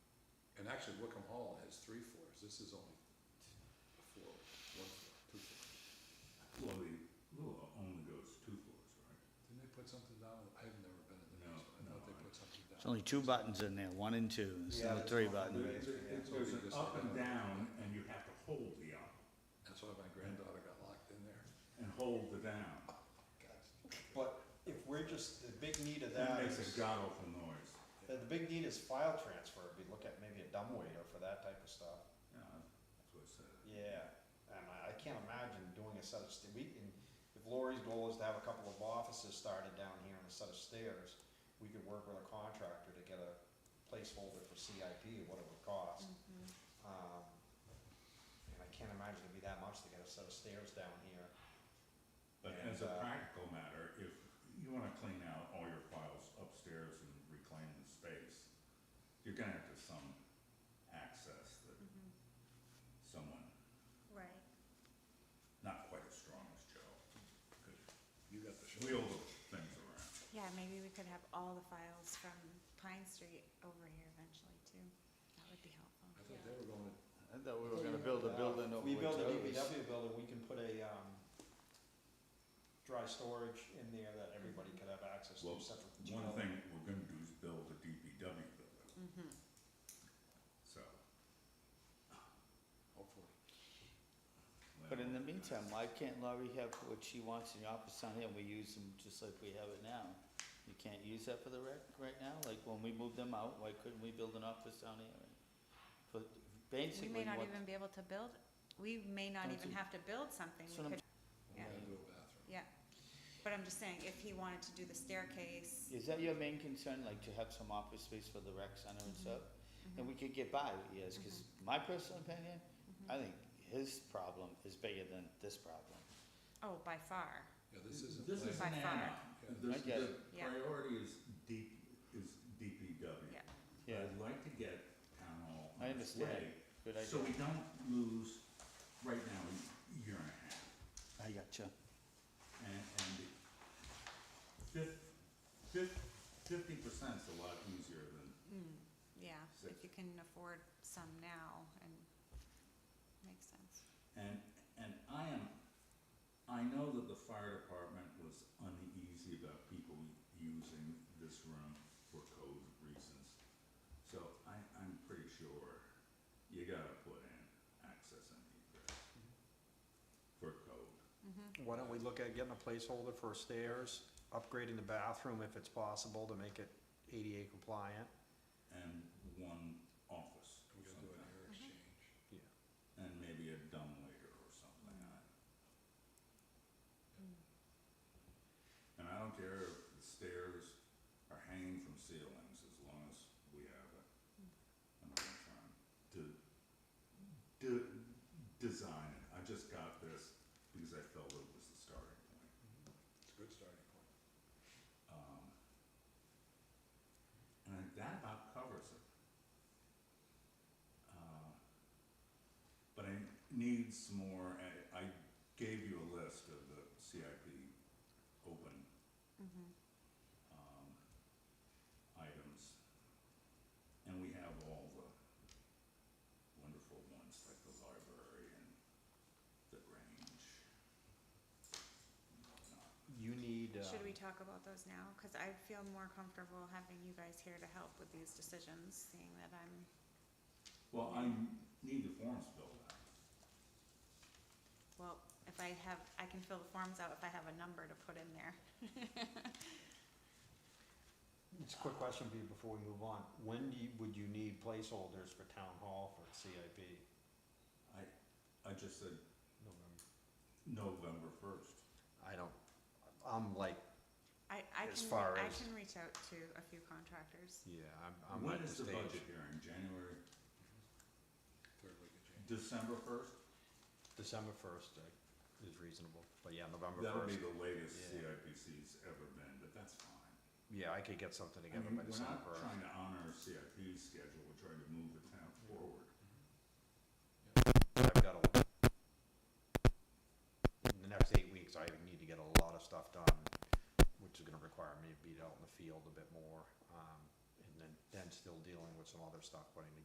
three floors, this is only a floor, one floor, two floors. Well, the Lua only goes two floors, right? Didn't they put something down, I've never been in the No, basement, I thought no, they I- put something down. There's only two buttons in there, one and two, there's no three button. There- there- There's an up and down, and you have to hold the up That's why my granddaughter got locked in there. and hold the down. But if we're just, the big need of That that makes is, a god awful noise. the the big need is file transfer, if you look at maybe a dumbwaiter for that type of stuff. Yeah, that's what I said. Yeah, and I, I can't imagine doing a set of, st- we can, if Lori's goal is to have a couple of offices started down here and a set of stairs, we could work with a contractor to get a placeholder for CIP or what it would cost. Um, and I can't imagine it'd be that much to get a set of stairs down here. But And, as a uh, practical matter, if you wanna clean out all your files upstairs and reclaim the space, you're gonna have to some access that someone, Right. not quite as strong as Joe, could You got the show. wheel those things around. Yeah, maybe we could have all the files from Pine Street over here eventually too. That would be helpful. I thought they were going to I thought we were gonna build a building If over we build a with those. DPW building, we can put a, um, dry storage in there that everybody could have access to Well, separate from One Joe. thing we're gonna do is build a DPW building, Mm-hmm. so, hopefully. But in the well, meantime, why can't Laurie have what she wants in the office down here, and we use them just like we have it now? You can't use that for the rec right now, like when we moved them out, why couldn't we build an office down here? But We basically may not what- even be able to build, we may not Don't even you- have to build something. That's We what I'm- could, We're Yeah. going to do a bathroom. yeah. But I'm just saying, if he wanted to do the staircase, Is that your main concern, like to have some office space for the rec center and stuff? Mm-hmm. And we could get by with yes, cause my personal opinion, Mm-hmm. I think his problem is bigger than this problem. oh, by far. Yeah, this isn't. This is like- an By far. add-on, I This- get the Yeah. priority is deep, is DPW. Yeah. Yeah, I'd like to get town hall I on its understand. way, good idea. So we don't lose, right now, a year and a half, I gotcha. and, and fif- fif- fifty percent's a lot easier than, Hmm, Yeah, if you can afford some now and makes sense. and, and I am, I know that the fire department was uneasy about people using this room for code reasons. So I, I'm pretty sure you gotta put in access and egress for code. Mm-hmm, Why don't we look at getting a placeholder for stairs, upgrading the bathroom if it's possible to make it ADA compliant? and one office We're or going to do an something, air exchange. and maybe a dumbwaiter or something. I- And I don't care if the stairs are hanging from ceilings, as long as we have it. I'm not gonna try and de- de- design it, I just got this because I felt it was the starting point. It's a good starting point. Um, and I think that about covers it. Uh, But I need some more, I, I gave you a list of the CIP open, Mhm. um, items. And we have all the wonderful ones, like the library and the range. and whatnot. You need, uh, Should we talk about those now? Cause I feel more comfortable having you guys here to help with these decisions, seeing that I'm Well, I need the forms filled out. Well, if I have, I can fill the forms out if I have a number to put in there. it's a quick question for you before we move on. When do you, would you need placeholders for town hall for CIP? I, I just said November. November first. I don't, I'm like, I, I As can, far re- I as- can reach out to a few contractors. yeah, I'm, I'm When at the is the stage. budget hearing, January, Third week of January. December first? December first is reasonable, but yeah, November That'll be first. the latest Yeah. CIPC's ever been, but that's fine. Yeah, I could get something I together mean, by we're December not first. trying to honor our CIP schedule, we're trying to move the town forward. I've got a, in the next eight weeks, I need to get a lot of stuff done, which is gonna require me to be out in the field a bit more, um, and then, then still dealing with some other stuff, putting